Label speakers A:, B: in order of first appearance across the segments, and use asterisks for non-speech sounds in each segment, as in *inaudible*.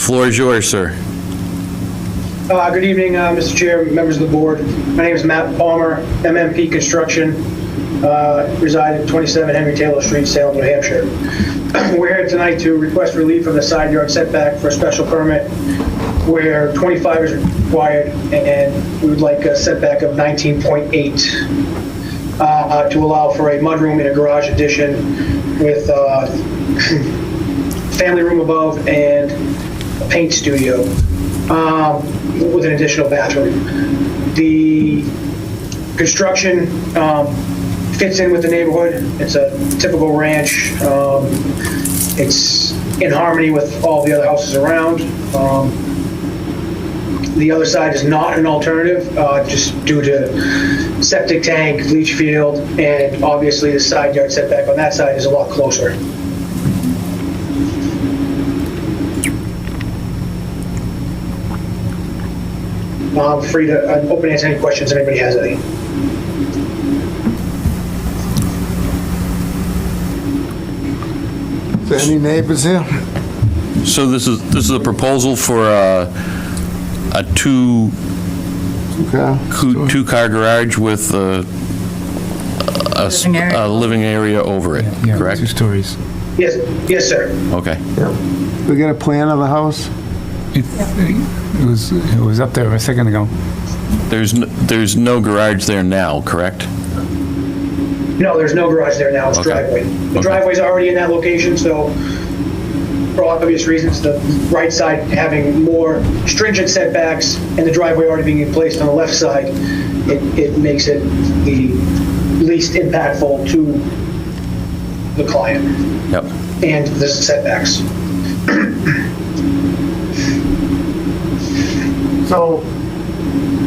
A: floor is yours, sir.
B: Uh, Good evening, uh, Mr. Chair, members of the board. My name is Matt Palmer, MMP Construction, uh, reside at 27 Henry Taylor Street, Salem, New Hampshire. *clears throat* We're here tonight to request relief from the side yard setback for a special permit where 25 is required, and we would like a setback of 19.8 uh, uh, to allow for a mudroom and a garage addition with uh family room above and a paint studio um, with an additional bathroom. The construction um, fits in with the neighborhood. It's a typical ranch. Um, It's in harmony with all the other houses around. Um, The other side is not an alternative, uh, just due to septic tank, leach field, and obviously the side yard setback on that side is a lot closer. I'm free to, I'm open to answer any questions if anybody has any.
C: Any neighbors here?
A: So this is, this is a proposal for a, a two,
C: Okay.
A: coo- two-car garage with a, a s-
D: Living
A: a
D: area.
A: living area over it,
E: Yeah, Two
A: correct?
E: stories.
B: Yes, yes, sir.
A: Okay.
C: Yep. We got a plan of the house?
E: It it was, it was up there a second ago.
A: There's, n- there's no garage there now, correct?
B: No, there's no garage there now, it's
A: Okay.
B: driveway.
A: Okay.
B: The driveway's already in that location, so for obvious reasons, the right side having more stringent setbacks and the driveway already being placed on the left side, it, it makes it the least impactful to the client
A: Yep.
B: and the setbacks.
C: So,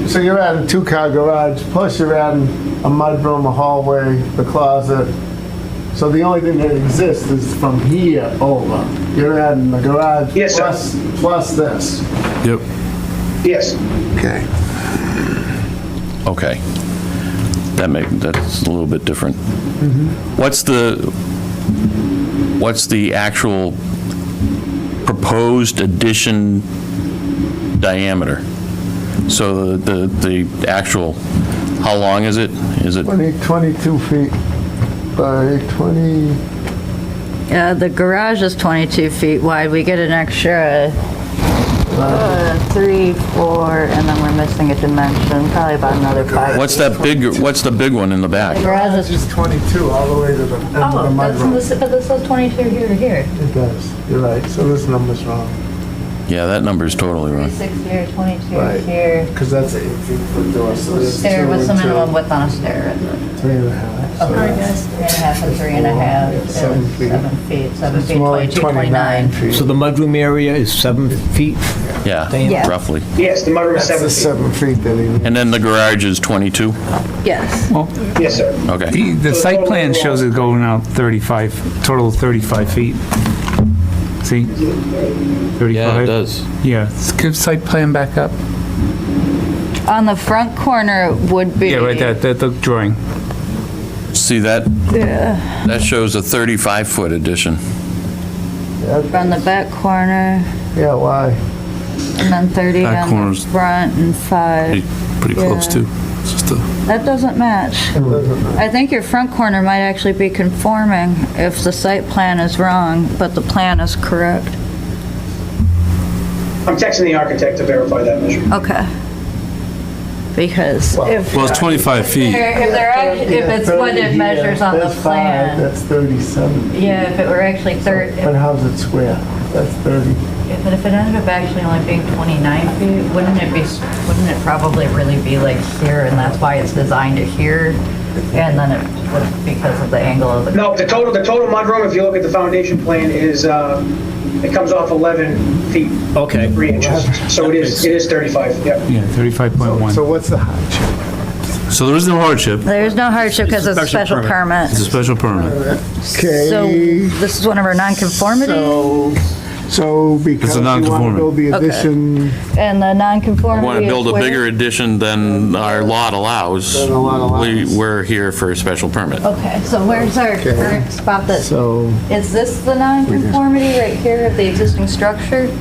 C: so you're adding two-car garage, plus you're adding a mudroom, a hallway, the closet. So the only thing that exists is from here over. You're adding the garage
B: Yes, sir.
C: plus, plus this.
E: Yep.
B: Yes,
C: Okay.
A: Okay. That make, that's a little bit different. What's the, what's the actual proposed addition diameter? So the, the the actual, how long is it? Is it,
C: 20, 22 feet by 20,
D: Uh, the garage is 22 feet wide. We get an extra uh, three, four, and then we're missing a dimension, probably about another five.
A: what's that big, what's the big one in the back?
D: Garage
C: garage
D: is-
C: is 22 all the way to the end of the mudroom.
D: but Oh, this says 22 here to here.
C: It does, you're right, so this number's wrong.
A: Yeah, that number's totally wrong.
D: 36 here, 22
C: Right.
D: here.
C: Because that's an 18-foot door, so there's two
D: Stair, what's the
C: and two,
D: minimum width Oh, on a stair? Is it
C: Three and a half. so that's-
D: Three and a half and three and a
C: Four,
D: half. and
C: seven feet.
D: Seven feet, seven
C: It's
D: feet,
C: more like
D: 22, 29.
F: So
C: feet.
F: the mudroom area is seven feet?
A: Yeah,
D: Yeah.
A: roughly.
B: yes, the mudroom is
C: That's the
B: seven feet.
C: seven feet that he needs.
A: And then the garage is 22?
D: Yes.
E: Well,
B: Yes, sir.
A: Okay.
E: the the site plan shows it going out 35, total of 35 feet. See? 35.
F: does.
E: Yeah, s- give site plan back up.
D: On the front corner it would be.
E: Yeah, right there, that, the drawing.
A: See, that, that shows a 35-foot addition.
D: From the back corner.
C: Yeah, why?
D: And then 30
G: Back
D: on the
G: corners.
D: front and 5.
G: pretty close
D: Yeah.
G: too. It's just a-
D: That doesn't match. I think your front corner might actually be conforming if the site plan is wrong, but the plan is correct.
B: I'm texting the architect to verify that measure.
D: Okay. Because if.
G: Well, it's 25 feet.
D: If they're, act- if it's what it measures on the
C: That's five,
D: plan.
C: That's 37.
D: Yeah, if it were actually 30,
C: But how's it square? That's 30.
D: But if it ended up actually only being 29 feet, wouldn't it be, wouldn't it probably really be like here, and that's why it's designed to here? And then it, would- because of the angle of the,
B: No, the total, the total mudroom, if you look at the foundation plan, is, uh, it comes off 11 feet,
F: Okay.
B: 3 inches. So it is, it is 35, yep.
E: Yeah, 35.1.
C: So what's the hardship?
G: So there is no hardship.
D: there's no hardship because it's a special permit.
G: It's a special permit.
D: So
C: Okay,
D: this is one of our nonconformities,
C: so, so because you want to
G: non-conforming.
C: build the addition,
D: and the
A: We
D: nonconformity.
A: want to build a
D: is where-
A: bigger addition than our lot allows.
C: Than the lot allows.
A: We, we're here for a special permit.
D: Okay, so where's our current spot that,
C: so
D: is this the nonconformity right here of the existing structure?